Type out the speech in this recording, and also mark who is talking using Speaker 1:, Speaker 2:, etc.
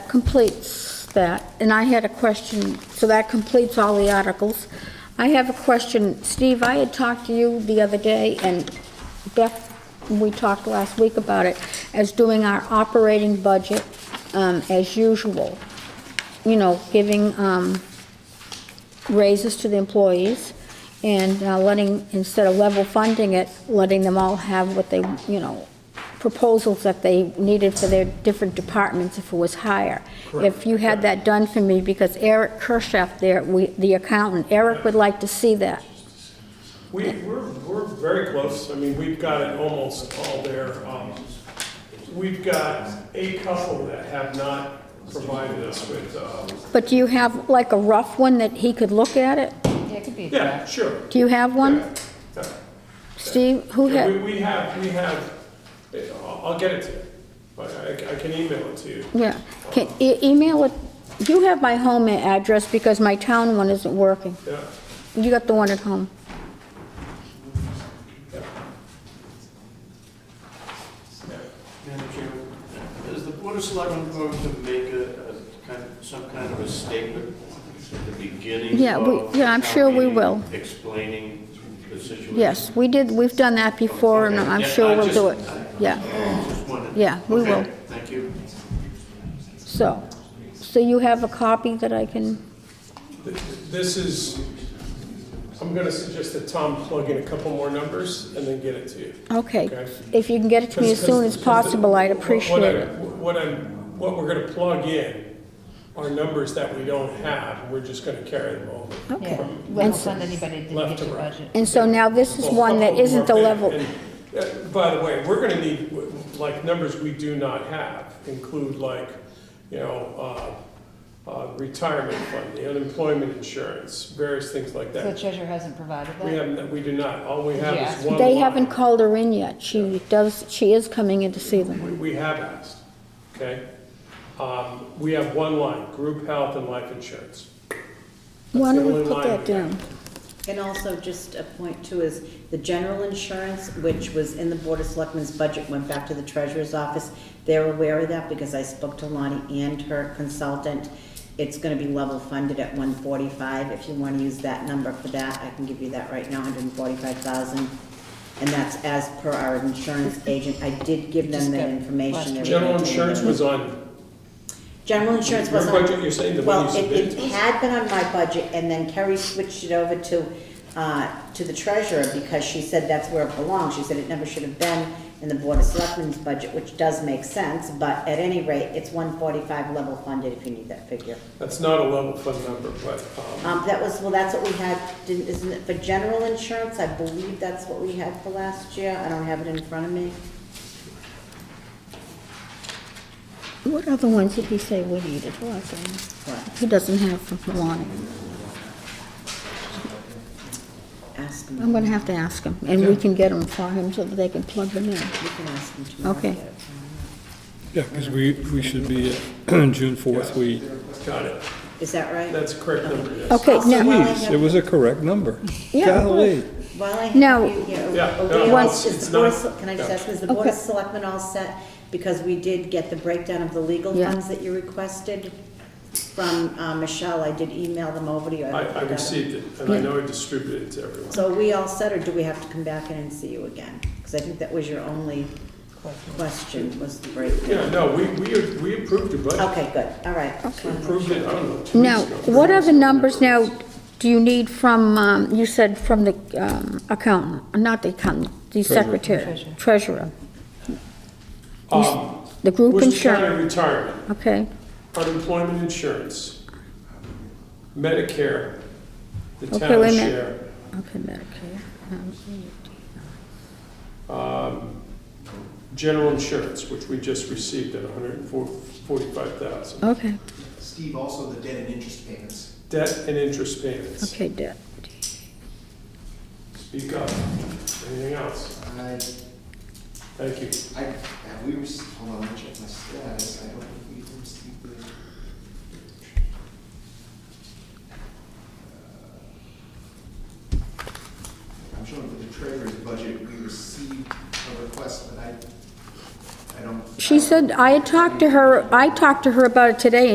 Speaker 1: completes that. And I had a question, so that completes all the articles. I have a question. Steve, I had talked to you the other day, and Beth, we talked last week about it, as doing our operating budget um, as usual. You know, giving um, raises to the employees and uh, letting, instead of level funding it, letting them all have what they, you know, proposals that they needed for their different departments if it was higher. If you had that done for me, because Eric Kirschaf there, we- the accountant, Eric would like to see that.
Speaker 2: We, we're, we're very close. I mean, we've got it almost all there. Um, We've got a couple that have not provided us with, uh,
Speaker 1: But do you have like a rough one that he could look at it?
Speaker 3: Yeah, it could be a
Speaker 2: yeah,
Speaker 3: draft.
Speaker 2: sure.
Speaker 1: Do you have one?
Speaker 2: Yeah, yeah.
Speaker 1: Steve, who
Speaker 2: Yeah, We,
Speaker 1: had,
Speaker 2: we have, we have, uh, I'll, I'll get it to you. But I, I can email it to you.
Speaker 1: yeah, can, e- email it, you have my home address because my town one isn't working.
Speaker 2: Yeah.
Speaker 1: You got the one at home.
Speaker 4: Madam Chairman, is the Board of Selectmen going to make a, a kind of, some kind of a statement at the beginning
Speaker 1: Yeah, we-
Speaker 4: of
Speaker 1: yeah, I'm
Speaker 4: the
Speaker 1: sure we
Speaker 4: town meeting
Speaker 1: will.
Speaker 4: Explaining the situation?
Speaker 1: Yes, we did, we've done that before, and I'm
Speaker 4: Yeah,
Speaker 1: sure
Speaker 4: I
Speaker 1: we'll
Speaker 4: just-
Speaker 1: do it. Yeah,
Speaker 4: Just wondered.
Speaker 1: Yeah, we
Speaker 4: Okay,
Speaker 1: will.
Speaker 4: Thank you.
Speaker 1: so, so you have a copy that I can,
Speaker 2: Th- This is, I'm gonna suggest that Tom plug in a couple more numbers and then get it to you.
Speaker 1: okay.
Speaker 2: Okay.
Speaker 1: If you can get it to me as soon as possible, I'd appreciate
Speaker 2: What I-
Speaker 1: it.
Speaker 2: What I'm, what we're gonna plug in are numbers that we don't have, we're just gonna carry them over.
Speaker 3: Yeah,
Speaker 2: From
Speaker 3: we won't fund anybody that didn't
Speaker 2: Left
Speaker 3: get
Speaker 2: to
Speaker 3: the
Speaker 2: right.
Speaker 3: budget.
Speaker 1: And so now this is
Speaker 2: Well,
Speaker 1: one that
Speaker 2: couple
Speaker 1: isn't the
Speaker 2: more-
Speaker 1: level,
Speaker 2: and- and, uh, By the way, we're gonna need, w- like, numbers we do not have include like, you know, uh, uh, retirement fund, the unemployment insurance, various things like
Speaker 3: So the
Speaker 2: that.
Speaker 3: treasurer hasn't provided
Speaker 2: We
Speaker 3: that?
Speaker 2: have, we do not, all we have
Speaker 3: Yes.
Speaker 2: is one
Speaker 1: they
Speaker 2: line.
Speaker 1: haven't called her in yet. She does, she is coming in to see them.
Speaker 2: We, we have asked, okay? Um, we have one line, group health and life insurance.
Speaker 1: Why
Speaker 2: the
Speaker 1: don't we
Speaker 2: only
Speaker 1: put
Speaker 2: line
Speaker 1: that
Speaker 2: we have.
Speaker 1: down?
Speaker 5: And also, just a point too, is the general insurance, which was in the Board of Selectmen's budget, went back to the treasurer's office. They're aware of that because I spoke to Lonnie and her consultant. It's gonna be level funded at one forty-five. If you wanna use that number for that, I can give you that right now, hundred and forty-five thousand. And that's as per our insurance agent. I did give them that information. They were
Speaker 2: General
Speaker 5: gonna take it.
Speaker 2: insurance was on,
Speaker 5: General insurance
Speaker 2: Your
Speaker 5: wasn't. on-
Speaker 2: budget, you're saying the one you
Speaker 5: Well,
Speaker 2: submitted
Speaker 5: it,
Speaker 2: to us?
Speaker 5: it had been on my budget, and then Kerry switched it over to, uh, to the treasurer, because she said that's where it belongs. She said it never should have been in the Board of Selectmen's budget, which does make sense, but at any rate, it's one forty-five level funded if you need that figure.
Speaker 2: that's not a level fund number, but, um,
Speaker 5: Um, that was, well, that's what we had, didn't, isn't it, for general insurance, I believe that's what we had for last year. I don't have it in front of me.
Speaker 1: What other ones did he say we needed? Well, I don't- He doesn't have from Lonnie.
Speaker 5: Ask him.
Speaker 1: I'm gonna have to ask him, and we can get them for him so that they can plug them in.
Speaker 5: You can ask him tomorrow.
Speaker 1: Okay.
Speaker 6: Yeah, because we, we should be, on June 4th, we,
Speaker 2: got it,
Speaker 5: Is that right?
Speaker 2: that's the correct number, yes.
Speaker 1: Okay,
Speaker 5: Also,
Speaker 1: now,
Speaker 5: while I
Speaker 6: please,
Speaker 5: have
Speaker 6: it was a correct number.
Speaker 1: Yeah, it
Speaker 6: Golly.
Speaker 5: While I
Speaker 1: No.
Speaker 5: have you here,
Speaker 2: Yeah,
Speaker 5: are we
Speaker 2: no,
Speaker 5: all-
Speaker 2: it's-
Speaker 5: is
Speaker 2: it's
Speaker 5: the Board of
Speaker 2: not-
Speaker 5: Sele- can I just
Speaker 2: yeah.
Speaker 5: ask, is the Board of
Speaker 1: Okay.
Speaker 5: Selectmen all set? Because we did get the breakdown of the legal
Speaker 1: Yeah.
Speaker 5: funds that you requested from uh, Michelle. I did email them over to you.
Speaker 2: I,
Speaker 5: looked
Speaker 2: I
Speaker 5: at them.
Speaker 2: received it, and I know I distributed it to everyone.
Speaker 5: So are we all set, or do we have to come back in and see you again? Because I think that was your only question, was the
Speaker 2: Yeah,
Speaker 5: breakdown.
Speaker 2: no, we, we, we approved your budget,
Speaker 5: Okay, good, all right.
Speaker 2: we approved it, I don't know, two
Speaker 1: Now,
Speaker 2: weeks ago.
Speaker 1: what other numbers now do you need from, um, you said from the um, accountant, not the accountant, the secretary, treasurer? You s-
Speaker 2: Um,
Speaker 1: The group
Speaker 2: Worcester
Speaker 1: insurance,
Speaker 2: County retirement,
Speaker 1: okay,
Speaker 2: unemployment insurance, Medicare, the
Speaker 1: Okay,
Speaker 2: town
Speaker 1: wait a minute.
Speaker 2: share.
Speaker 1: okay, Medicare. um,
Speaker 2: um, General insurance, which we just received at $145,000.
Speaker 1: Okay,
Speaker 7: Steve, also the debt and interest payments.
Speaker 2: Debt and interest payments.
Speaker 1: okay, debt.
Speaker 2: Speak up. Anything else?
Speaker 7: I,
Speaker 2: Thank you.
Speaker 7: I, have we received, hold on, let me check my status, I don't think we've received the. Uh, I'm showing for the treasurer's budget, we received a request, but I, I don't.
Speaker 1: She said, I had talked to her, I talked to her about it today,